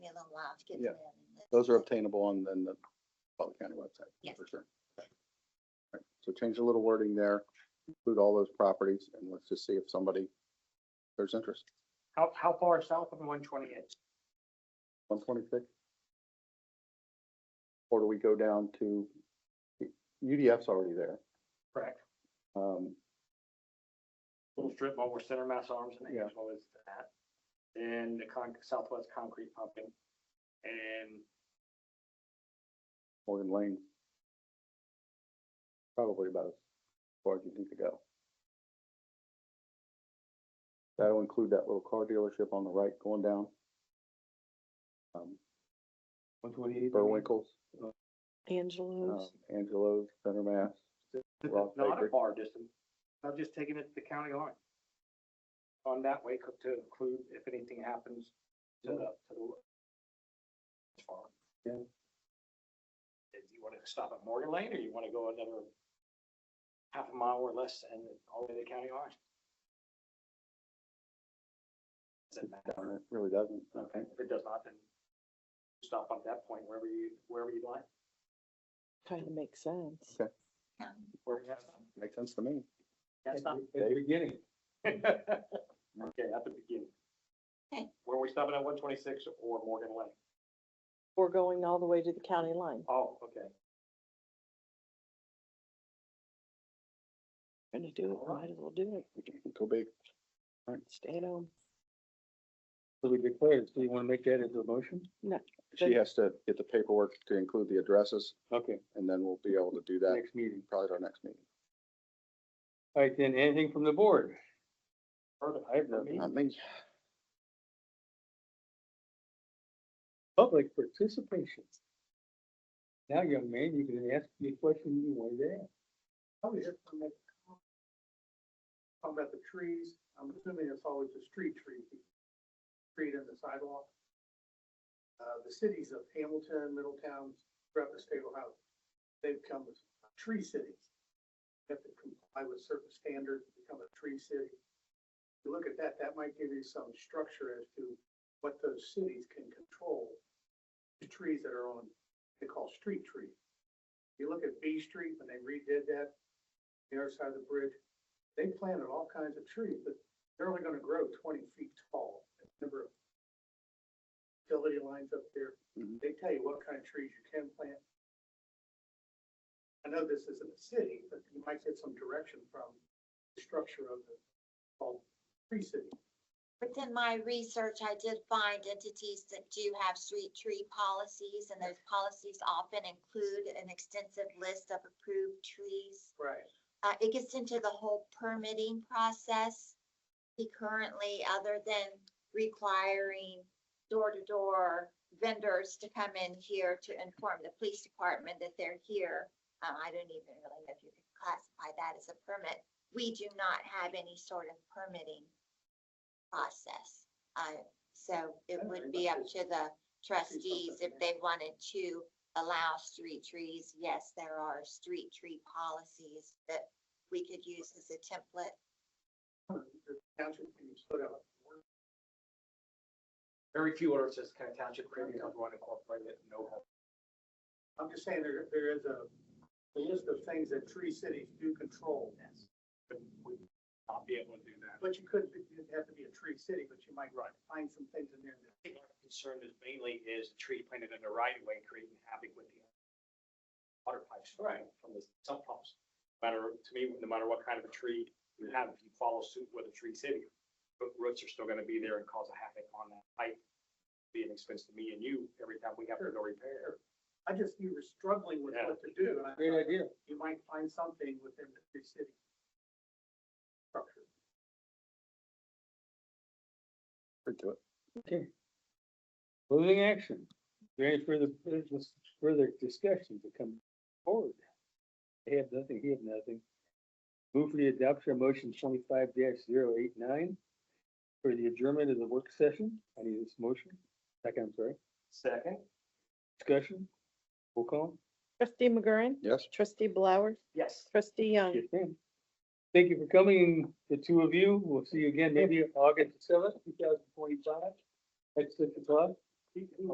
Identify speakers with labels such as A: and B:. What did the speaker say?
A: to get to
B: Yeah.
A: that.
B: Those are obtainable on then the Butler County website.
A: Yes.
B: For sure. Right, So change a little wording there, include all those properties, and let's just see if somebody, there's interest.
C: How, how far south of one twenty-eight?
B: One twenty-six? Or do we go down to, UDF's already there.
C: Correct.
B: Um,
C: Little strip mall where Center Mass Arms and
B: Yeah.
C: Angelo is at. Then the con, Southwest Concrete Pumping. And
B: Morgan Lane. Probably about as far as you need to go. That'll include that little car dealership on the right going down. Um,
D: One twenty-eight.
B: Burwinkles, uh, um,
E: Angelo's.
B: Angelo's, Center Mass. Ross
C: not a
B: Bakery.
C: far distance. I'm just taking it to the county line. On that way co- to include if anything happens to the, to the. as far.
B: Yeah.
C: If you want to stop at Morgan Lane or you want to go another half a mile or less and all the way to the county line. Doesn't matter.
B: Darn it, Really doesn't.
C: Okay, if it does not, then stop at that point wherever you, wherever you'd like.
E: Kind of makes sense.
B: Okay.
A: Um,
C: Wherever you have
B: Makes sense to me.
C: That's not.
D: At the beginning.
C: Okay, at the beginning.
A: Okay.
C: Were we stopping at one twenty-six or Morgan Lane?
E: We're going all the way to the county line.
C: Oh, okay.
E: Gonna do it, might as well do
B: Go big.
E: it. Stay at home.
D: So we declared, so you want to make that into a motion?
B: She
E: Good.
B: has to get the paperwork to include the addresses,
D: Okay,
B: and then we'll be able to do that
D: next meeting.
B: probably at our next meeting.
D: All right, then, anything from the board?
C: Heard of
D: I have no
B: Not me.
D: public participation. Now, young man, you can ask me a question you wanted to ask.
F: I was just gonna make a comment. Talking about the trees, I'm assuming it's always a street tree, street and the sidewalk. Uh, the cities of Hamilton, Middletown, throughout the state of Ohio, they've become tree cities. They Have to comply with certain standards, to become a tree city. If you look at that, that might give you some structure as to what those cities can control. The trees that are on, they call street trees. You look at B Street, when they redid that, the other side of the bridge, they planted all kinds of trees, but they're only gonna grow twenty feet tall. Number of utility lines up there,
B: Mhm.
F: they tell you what kind of trees you can plant. I know this isn't a city, but you might get some direction from the structure of the, called tree city.
A: Within my research, I did find entities that do have street tree policies, and those policies often include an extensive list of approved trees.
F: Right.
A: uh, it gets into the whole permitting process. He currently, other than requiring door-to-door vendors to come in here to inform the police department that they're here, uh, I don't even really know if you could classify that as a permit. We do not have any sort of permitting process. Uh, so it
F: That's
A: would be
F: very much
A: up
F: is-
A: to the trustees if
F: yeah.
A: they wanted to allow street trees. Yes, there are street tree policies that we could use as a template.
F: Uh, The township can put out
C: Very few ordinances kind of township creating, I want to incorporate it, no.
F: I'm just saying there, there is a, a list of things that tree cities do control.
C: But we not be able to do that.
F: But you couldn't, it'd have to be a tree city, but you might find some things in there that.
C: I think our concern is mainly is the tree planted in the right of way creating havoc with the water pipes. Right. From the sump pumps. Matter, to me, no matter what kind of a tree you have, if you follow suit with a tree city, but roots are still gonna be there and cause a havoc on that pipe. Be an expense to me and you every time we have to go repair.
F: I just, you were struggling with what to do, and I
D: Great
F: thought
D: idea.
F: you might find something within the tree city. structure.
B: Pretty to it.
D: Okay. Closing action. Is there any further business, further discussion to come forward? They have nothing, he have nothing. Move for the adoption of motion twenty-five 89 for the adjournment of the work session. I need this motion. Second, I'm sorry.
C: Second.
D: Discussion. Roll call.
E: Trustee McGurran,
B: Yes?
E: trustee Blower,
C: Yes.
E: trustee Young.
D: Yes, ma'am. Thank you for coming, the two of you. We'll see you again maybe August seventh, two thousand twenty-five, at six o'clock.